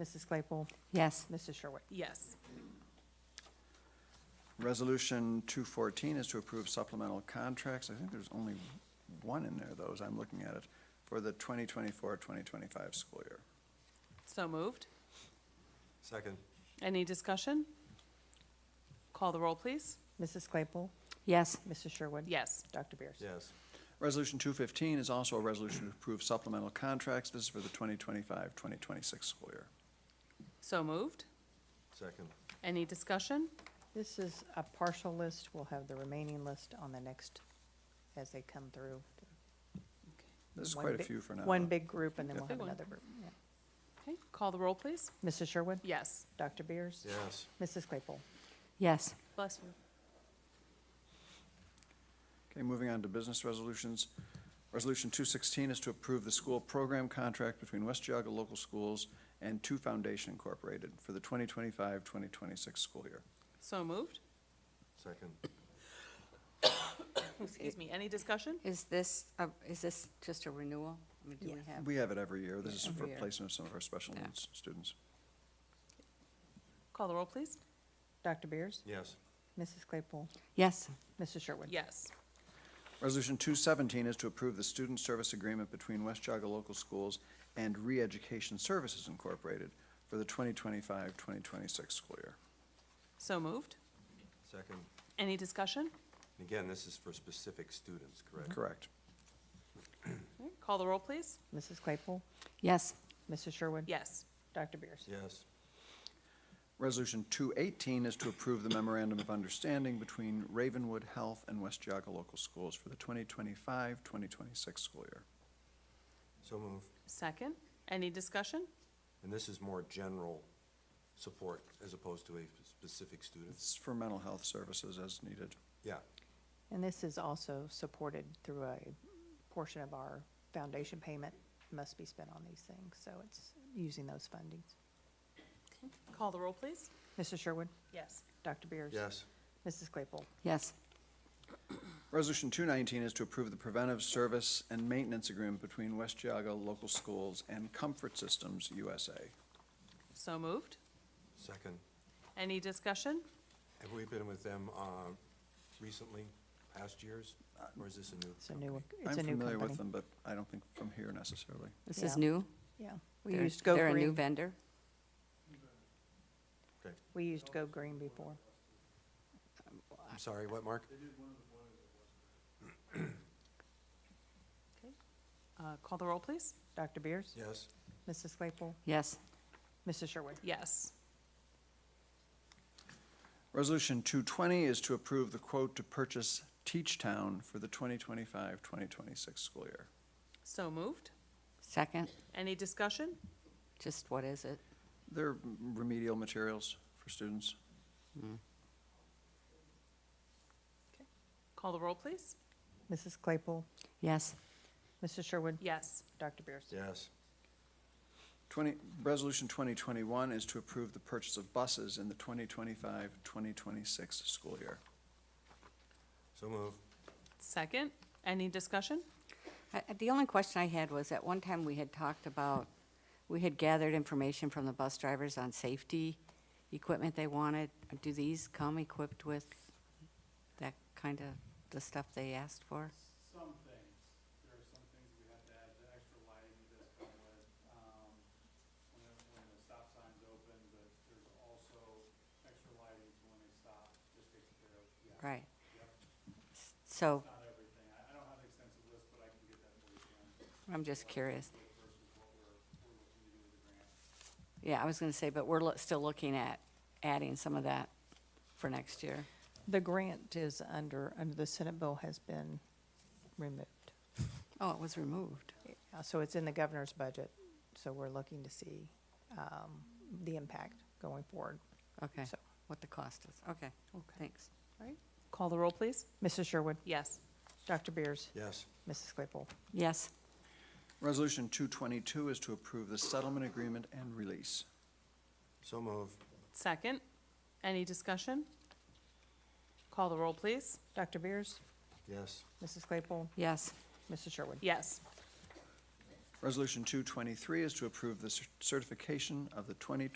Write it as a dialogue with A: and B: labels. A: Mrs. Claypool,
B: Yes.
A: Mrs. Sherwood.
C: Yes.
D: Resolution 214 is to approve supplemental contracts. I think there's only one in there, though, as I'm looking at it, for the 2024-2025 school year.
C: So moved.
E: Second.
C: Any discussion? Call the roll, please.
A: Mrs. Claypool,
B: Yes.
A: Mrs. Sherwood.
C: Yes.
A: Dr. Beers.
E: Yes.
D: Resolution 215 is also a resolution to approve supplemental contracts. This is for the 2025-2026 school year.
C: So moved.
E: Second.
C: Any discussion?
A: This is a partial list. We'll have the remaining list on the next, as they come through.
D: There's
A: One
D: quite a
A: big-
D: few for now.
A: One big group, and then we'll
C: Big
A: have
C: one.
A: another group. Yeah.
C: Okay, call the roll, please.
A: Mrs. Sherwood,
C: Yes.
A: Dr. Beers.
E: Yes.
A: Mrs. Claypool.
B: Yes.
C: Bless you.
D: Okay, moving on to business resolutions. Resolution 216 is to approve the school program contract between West Geauga Local Schools and Two Foundation Incorporated for the 2025-2026 school year.
C: So moved.
E: Second.
C: Excuse me. Any discussion?
B: Is this, a- is this just a renewal? I mean, do we have?
D: We have it every year. This is for
B: Every year.
D: placement of some of our special
B: Yeah.
D: needs students.
C: Call the roll, please.
A: Dr. Beers.
E: Yes.
A: Mrs. Claypool,
B: Yes.
A: Mrs. Sherwood.
C: Yes.
D: Resolution 217 is to approve the student service agreement between West Jaga Local Schools and Reeducation Services Incorporated for the 2025-2026 school year.
C: So moved.
E: Second.
C: Any discussion?
E: And again, this is for specific students,
B: Mm-hmm.
E: correct?
D: Correct.
C: Okay, Call the roll, please.
A: Mrs. Claypool,
B: Yes.
A: Mrs. Sherwood.
C: Yes.
A: Dr. Beers.
E: Yes.
D: Resolution 218 is to approve the memorandum of understanding between Ravenwood Health and West Jaga Local Schools for the 2025-2026 school year.
E: So move.
C: Second. Any discussion?
E: And this is more general support as opposed to a specific student?
D: It's for mental health services as needed.
E: Yeah.
A: And this is also supported through a portion of our foundation payment must be spent on these things, so it's using those fundings.
C: Call the roll, please.
A: Mrs. Sherwood,
C: Yes.
A: Dr. Beers.
E: Yes.
A: Mrs. Claypool,
B: Yes.
D: Resolution 219 is to approve the preventive service and maintenance agreement between West Jaga Local Schools and Comfort Systems USA.
C: So moved.
E: Second.
C: Any discussion?
E: Have we been with them uh, recently, past years, or is this a new?
A: it's a new,
D: I'm
A: it's a new
D: familiar with
A: company.
D: them, but I don't think from here necessarily.
B: This is
A: Yeah.
B: new?
A: Yeah, we
B: They're-
A: used Go
B: They're a new
A: Green,
B: vendor?
A: we used Go Green before.
E: I'm sorry, what, Mark?
C: Uh, Call the roll, please.
A: Dr. Beers.
E: Yes.
A: Mrs. Claypool,
B: Yes.
A: Mrs. Sherwood.
C: Yes.
D: Resolution 220 is to approve the quote to purchase Teach Town for the 2025-2026 school year.
C: So moved.
B: Second,
C: Any discussion?
B: just what is it?
D: They're remedial materials for students.
C: Call the roll, please.
A: Mrs. Claypool,
B: Yes.
A: Mrs. Sherwood,
C: Yes.
A: Dr. Beers.
E: Yes.
D: 20, Resolution 2021 is to approve the purchase of buses in the 2025-2026 school year.
E: So move.
C: Second. Any discussion?
B: I- I- The only question I had was, at one time, we had talked about, we had gathered information from the bus drivers on safety equipment they wanted. Do these come equipped with that kind of, the stuff they asked for?
F: some things, there are some things we have to add, the extra lighting that does come with, um, when the, when the stop sign's open, but there's also extra lighting for when they stop, just takes care of, yeah.
B: Right.
F: Yep,
B: So
F: not everything, I, I don't have an extensive list, but I can get that for you, Jan.
B: I'm just curious.
F: Versus what we're, we're looking to do with the grant.
B: Yeah, I was going to say, but we're lo- still looking at adding some of that for next year.
A: The grant is under, under the Senate bill has been removed.
B: Oh, it was removed.
A: Uh, So it's in the governor's budget, so we're looking to see um, the impact going forward.
B: Okay,
A: So-
B: what the cost is. Okay, thanks.
C: Call the roll, please.
A: Mrs. Sherwood,
C: Yes.
A: Dr. Beers,
E: Yes.
A: Mrs. Claypool,
B: Yes,
D: Resolution 222 is to approve the settlement agreement and release.
E: So move.
C: Second. Any discussion? Call the roll, please.
A: Dr. Beers,
E: Yes.
A: Mrs. Claypool,
B: yes,
A: Mrs. Sherwood.
C: Yes.
D: Resolution 223 is to approve the cer- certification of the 2020